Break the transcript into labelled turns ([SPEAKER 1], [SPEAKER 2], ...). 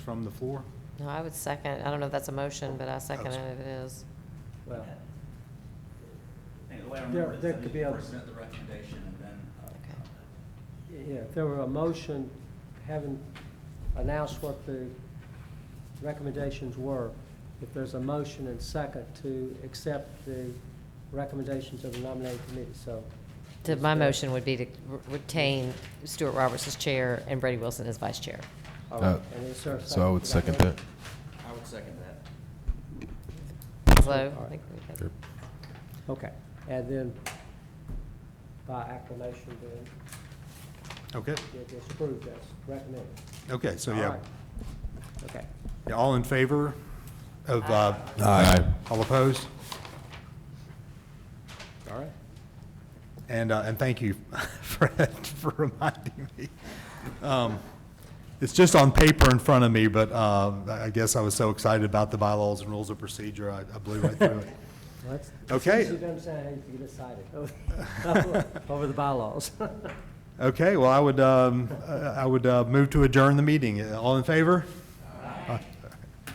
[SPEAKER 1] from the floor?
[SPEAKER 2] No, I would second, I don't know if that's a motion, but I second it if it is.
[SPEAKER 3] Well,
[SPEAKER 4] I think the way I
[SPEAKER 3] There-
[SPEAKER 4] remember it is
[SPEAKER 3] there
[SPEAKER 4] I
[SPEAKER 3] could
[SPEAKER 4] need
[SPEAKER 3] be
[SPEAKER 4] to
[SPEAKER 3] a-
[SPEAKER 4] present the recommendation and then. uh,
[SPEAKER 2] Okay.
[SPEAKER 3] yeah, if there were a motion, having announced what the recommendations were, if there's a motion and second to accept the recommendations of the nominating committee, so.
[SPEAKER 2] To- My motion would be to re- retain Stuart Roberts as chair and Brady Wilson as vice chair.
[SPEAKER 3] All
[SPEAKER 5] Uh,
[SPEAKER 3] right, and is there a
[SPEAKER 5] So I would
[SPEAKER 3] to
[SPEAKER 5] second that.
[SPEAKER 4] I would second that.
[SPEAKER 2] Slow.
[SPEAKER 3] All
[SPEAKER 2] I think we had-
[SPEAKER 5] Sure.
[SPEAKER 3] Okay, and then by acclamation, then
[SPEAKER 1] Okay,
[SPEAKER 3] it is approved as recommended.
[SPEAKER 1] okay, so
[SPEAKER 3] All
[SPEAKER 1] yeah,
[SPEAKER 3] right. Okay.
[SPEAKER 1] Yeah, all in favor of, uh,
[SPEAKER 5] Aye.
[SPEAKER 1] all opposed?
[SPEAKER 3] All right.
[SPEAKER 1] And, uh, and thank you, Fred, for reminding me. Um, It's just on paper in front of me, but uh, I I guess I was so excited about the bylaws and rules of procedure, I I blew right through it.
[SPEAKER 3] Let's-
[SPEAKER 1] Okay.
[SPEAKER 3] You don't sound like you get excited over- over the bylaws.
[SPEAKER 1] Okay, well, I would, um, uh, I would uh, move to adjourn the meeting. All in favor?